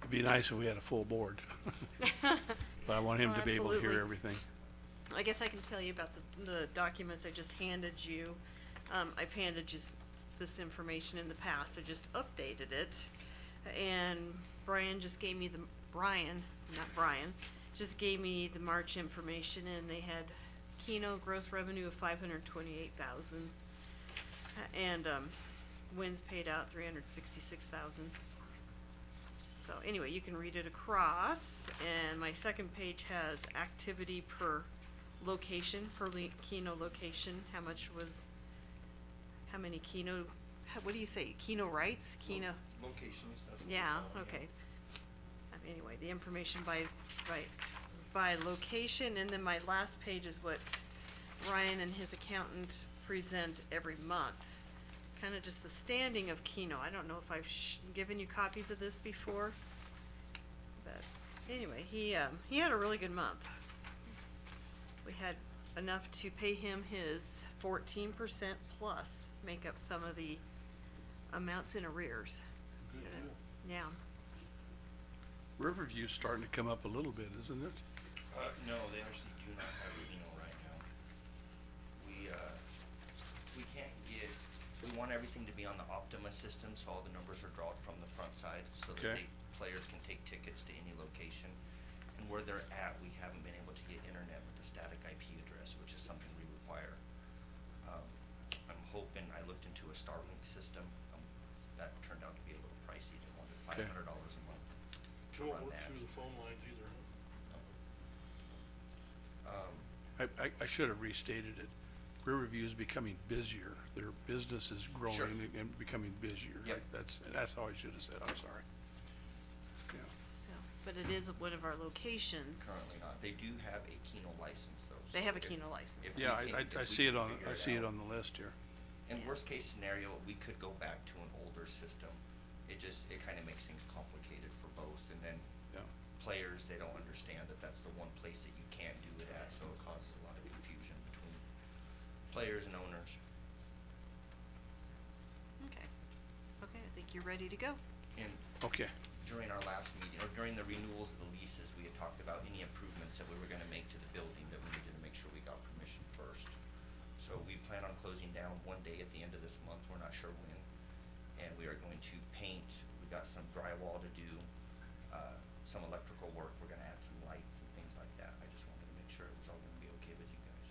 It'd be nice if we had a full board, but I want him Oh, to be able to hear absolutely. everything. I guess I can tell you about the, the documents I just handed you. Um, I've handed you s- this information in the past, I just updated it. And Brian just gave me the, Brian, not Brian, just gave me the March information and they had Keno gross revenue of five hundred twenty-eight thousand. And, um, wins paid out three hundred sixty-six thousand. So anyway, you can read it across, and my second page has activity per location, per le- Keno location, how much was, how many Keno, how- what do you say, Keno rights, Keno, Locations, that's what we yeah, call it, okay. Um, Anyway, the information by, by, by location, and then my last page is what Ryan and his accountant present every month. Kinda just the standing of Keno, I don't know if I've sh- given you copies of this before. But anyway, he, um, he had a really good month. We had enough to pay him his fourteen percent plus, make up some of the amounts in arrears. Yeah, Riverview's starting to come up a little bit, isn't it? Uh, no, they actually do not have Reno right now. We, uh, we can't get, we want everything to be on the Optima system, so all the numbers are drawn from the front side, so that Okay. they, players can take tickets to any location. And where they're at, we haven't been able to get internet with the static IP address, which is something we require. Um, I'm hoping, I looked into a Starlink system, um, that turned out to be a little pricey, they wanted five Okay. hundred dollars a month to Don't run work that. Um, through the phone lines either, huh? No. Um, I, I, I should have restated it. Riverview is becoming busier. Their business is growing Sure. and- and becoming busier. Yep. That's, that's how I should have said, I'm sorry. Yeah. so, but it is one of our locations. Currently not. They do have a Keno license though. They so have a if- Keno license. if we Yeah, can- I, if I, I we see it can on, figure I see it out. on the list here. In Yeah. worst case scenario, we could go back to an older system. It just, it kinda makes things complicated for both and then Yeah. players, they don't understand that that's the one place that you can't do it at, so it causes a lot of confusion between players and owners. Okay, okay, I think you're ready to go. And Okay, during our last meeting, or during the renewals of the leases, we had talked about any improvements that we were gonna make to the building, that we needed to make sure we got permission first. So we plan on closing down one day at the end of this month, we're not sure when, and we are going to paint, we got some drywall to do, uh, some electrical work, we're gonna add some lights and things like that, I just wanted to make sure it was all gonna be okay with you guys.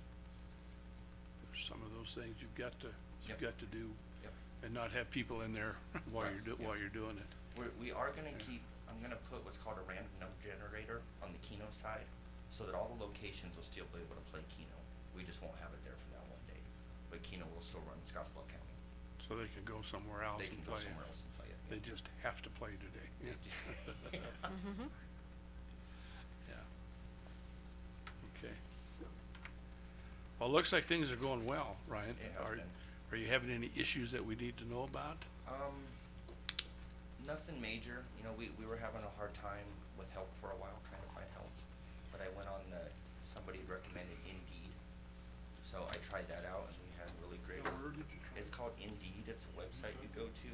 there's some of those things you've got to, you've Yep. got to do Yep. and not have people in there while Right, you're do, yeah. while you're doing it. We're, we are gonna keep, I'm gonna put what's called a random number generator on the Keno side, so that all the locations will still be able to play Keno. We just won't have it there for that one day, but Keno will still run in Scottsbluff County. So they can go somewhere else They and can go play. somewhere else and play it. They just have to play today. yeah. Mm-hmm. Yeah. Okay. Well, it looks like things are going well, Ryan. It has Are, been. are you having any issues that we need to know about? Um, nothing major, you know, we, we were having a hard time with help for a while, trying to find help. But I went on the, somebody recommended Indeed, so I tried that out and we had really great. Now, where did you try? It's called Indeed, it's a website you go to,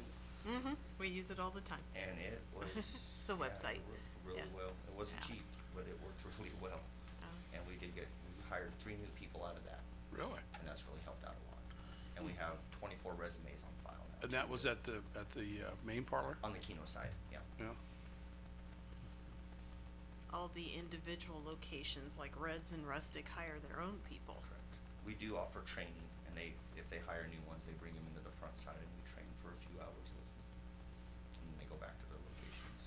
Mm-hmm, we use it all the time. and it was. It's a yeah, website, It worked really yeah. well. It wasn't Yeah. cheap, but it worked really well. Oh. And we did get, we hired three new people out of that, Really? and that's really helped out a lot. And we have twenty-four resumes on file now. And that was at the, at the, uh, main parlor? On the Keno side, yeah. Yeah. All the individual locations, like Reds and Rustic hire their own people. Correct. We do offer training, and they, if they hire new ones, they bring them into the front side and we train for a few hours with them. And then they go back to their locations.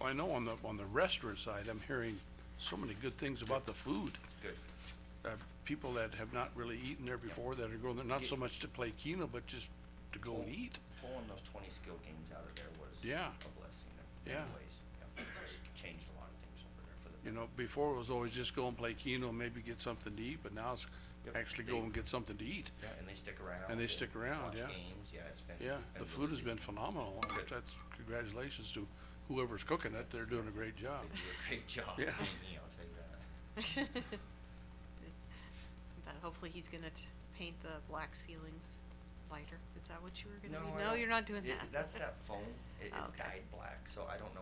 Well, I know on the, on the restaurant side, I'm hearing so many good things about the food. Good. Uh, people that have not really eaten there before that are going there, not so Get- much to play Keno, but just to go and Pull- eat. Pulling those twenty skill games out of there was Yeah. a blessing in Yeah. many ways. Yeah. It's Changed a lot of things over there for the You better. know, before it was always just go and play Keno, maybe get something to eat, but now it's Yep. actually go and get something to eat. Yeah, and they stick around. And they stick around, watch yeah. Games, yeah, it's been. Yeah, been the really food has been busy. phenomenal. and Good. That's, congratulations to whoever's cooking it. They're doing a great job. They do a great job. Yeah. being me, I'll tell you that. But hopefully he's gonna t- paint the black ceilings lighter, is that what you were gonna do? I No, don't- you're not doing it- that. That's that foom. It, Oh, it's okay. dyed black, so I don't know